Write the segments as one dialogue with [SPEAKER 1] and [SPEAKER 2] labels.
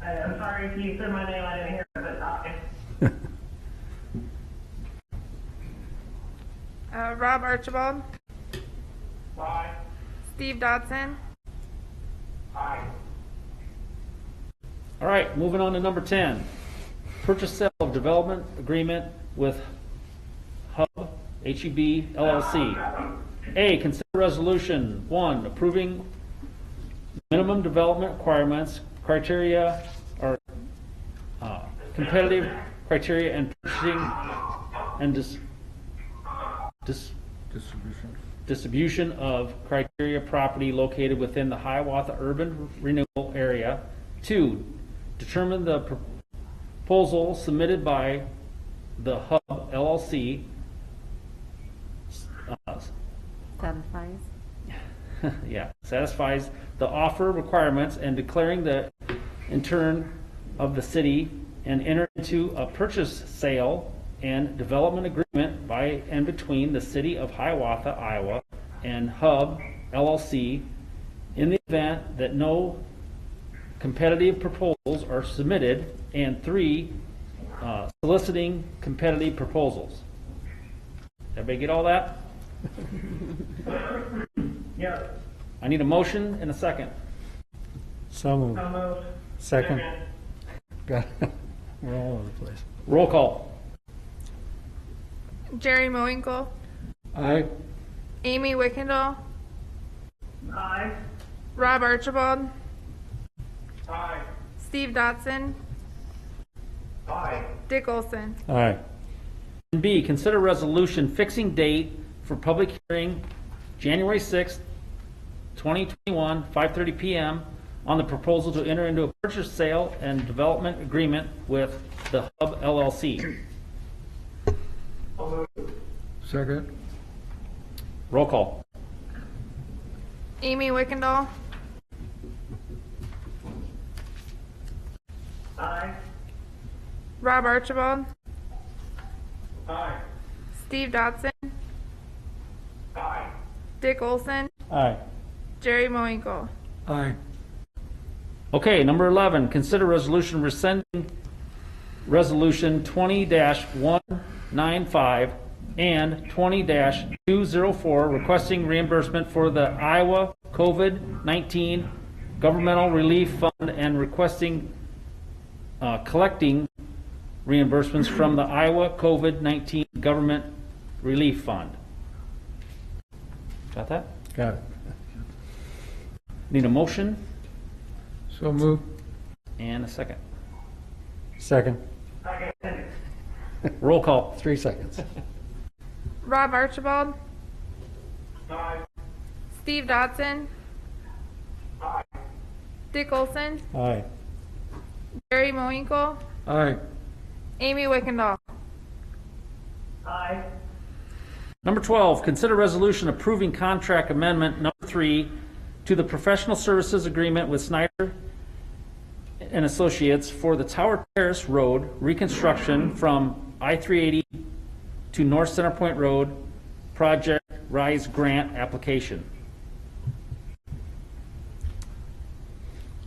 [SPEAKER 1] I- Uh, I'm sorry if you said my name, I didn't hear it, but uh, if-
[SPEAKER 2] Uh, Rob Archibald,
[SPEAKER 1] aye,
[SPEAKER 2] Steve Dodson,
[SPEAKER 1] aye.
[SPEAKER 3] All right, moving on to number 10. Purchase sale of development agreement with Hub, E HEB LLC. A, consider resolution, one, approving minimum development requirements, criteria, or uh, competitive criteria and purchasing and dis, dis,
[SPEAKER 4] Distribution.
[SPEAKER 3] distribution of criteria property located within the Hiawatha Urban Renewal Area. Two, determine the proposal submitted by the Hub LLC. uh,
[SPEAKER 5] Satisfies.
[SPEAKER 3] Yeah, satisfies the offer requirements and declaring the, in turn, of the city and enter into a purchase, sale, and development agreement by and between the city of Hiawatha, Iowa, and Hub LLC in the event that no competitive proposals are submitted, and three, uh, soliciting competitive proposals. Everybody get all that?
[SPEAKER 1] Yes,
[SPEAKER 3] I need a motion and a second.
[SPEAKER 4] So moved.
[SPEAKER 1] so moved.
[SPEAKER 4] Second. God, We're all over the place.
[SPEAKER 3] Roll call.
[SPEAKER 2] Jerry Moinkle,
[SPEAKER 4] Aye.
[SPEAKER 2] Amy Wickendall,
[SPEAKER 1] Aye,
[SPEAKER 2] Rob Archibald,
[SPEAKER 1] aye,
[SPEAKER 2] Steve Dodson,
[SPEAKER 1] aye,
[SPEAKER 2] Dick Olson.
[SPEAKER 4] Aye.
[SPEAKER 3] And B, consider resolution fixing date for public hearing, January 6th, 2021, 5:30 PM, on the proposal to enter into a purchase, sale, and development agreement with the Hub LLC.
[SPEAKER 4] Second.
[SPEAKER 3] Roll call.
[SPEAKER 2] Amy Wickendall,
[SPEAKER 1] aye,
[SPEAKER 2] Rob Archibald,
[SPEAKER 1] aye,
[SPEAKER 2] Steve Dodson,
[SPEAKER 1] aye.
[SPEAKER 2] Dick Olson,
[SPEAKER 4] Aye.
[SPEAKER 2] Jerry Moinkle.
[SPEAKER 4] Aye.
[SPEAKER 3] Okay, number 11, consider resolution rescinding Resolution 20-195 and 20-204 requesting reimbursement for the Iowa COVID-19 Governmental Relief Fund and requesting, uh, collecting reimbursements from the Iowa COVID-19 Government Relief Fund. Got that?
[SPEAKER 4] Got it.
[SPEAKER 3] Need a motion
[SPEAKER 4] So moved.
[SPEAKER 3] and a second.
[SPEAKER 4] Second.
[SPEAKER 1] Second,
[SPEAKER 3] Roll call.
[SPEAKER 4] Three seconds.
[SPEAKER 2] Rob Archibald,
[SPEAKER 1] aye,
[SPEAKER 2] Steve Dodson,
[SPEAKER 1] aye,
[SPEAKER 2] Dick Olson,
[SPEAKER 4] Aye.
[SPEAKER 2] Jerry Moinkle,
[SPEAKER 4] Aye.
[SPEAKER 2] Amy Wickendall.
[SPEAKER 1] aye,
[SPEAKER 3] Number 12, consider resolution approving contract amendment number three to the professional services agreement with Snyder and Associates for the Tower Terrace Road reconstruction from I-380 to North Center Point Road Project Rise Grant application.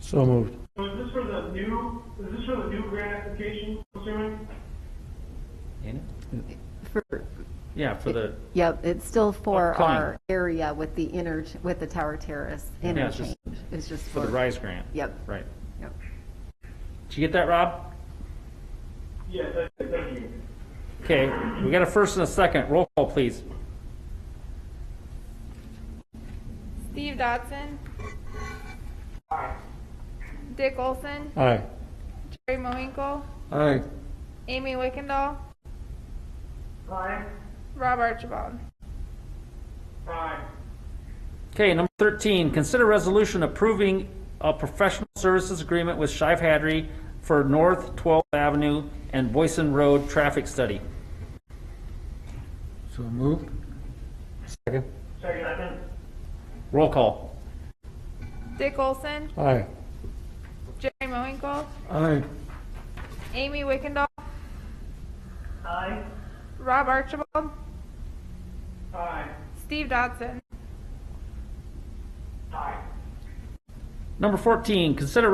[SPEAKER 4] So moved.
[SPEAKER 1] So is this for the new, is this for the new grant application, I'm assuming?
[SPEAKER 5] For,
[SPEAKER 3] Yeah, for the,
[SPEAKER 5] yeah, it's still for
[SPEAKER 3] Upcoming.
[SPEAKER 5] our area with the inter, with the Tower Terrace
[SPEAKER 3] Yeah, it's
[SPEAKER 5] interchange.
[SPEAKER 3] just-
[SPEAKER 5] It's just
[SPEAKER 3] for
[SPEAKER 5] for.
[SPEAKER 3] the Rise Grant.
[SPEAKER 5] Yep,
[SPEAKER 3] Right.
[SPEAKER 5] yep.
[SPEAKER 3] Did you get that, Rob?
[SPEAKER 1] Yes, I- thank you.
[SPEAKER 3] Okay, we got a first and a second. Roll call, please.
[SPEAKER 2] Steve Dodson, Dick Olson,
[SPEAKER 4] Aye.
[SPEAKER 2] Jerry Moinkle,
[SPEAKER 4] Aye.
[SPEAKER 2] Amy Wickendall,
[SPEAKER 1] Aye,
[SPEAKER 2] Rob Archibald.
[SPEAKER 1] aye,
[SPEAKER 3] Okay, number 13, consider resolution approving a professional services agreement with Shive Hadry for North 12th Avenue and Boyson Road traffic study.
[SPEAKER 4] So moved. Second.
[SPEAKER 1] second,
[SPEAKER 3] Roll call.
[SPEAKER 2] Dick Olson,
[SPEAKER 4] Aye.
[SPEAKER 2] Jerry Moinkle,
[SPEAKER 4] Aye.
[SPEAKER 2] Amy Wickendall,
[SPEAKER 1] aye,
[SPEAKER 2] Rob Archibald,
[SPEAKER 1] aye,
[SPEAKER 2] Steve Dodson.
[SPEAKER 1] aye.
[SPEAKER 3] Number 14, consider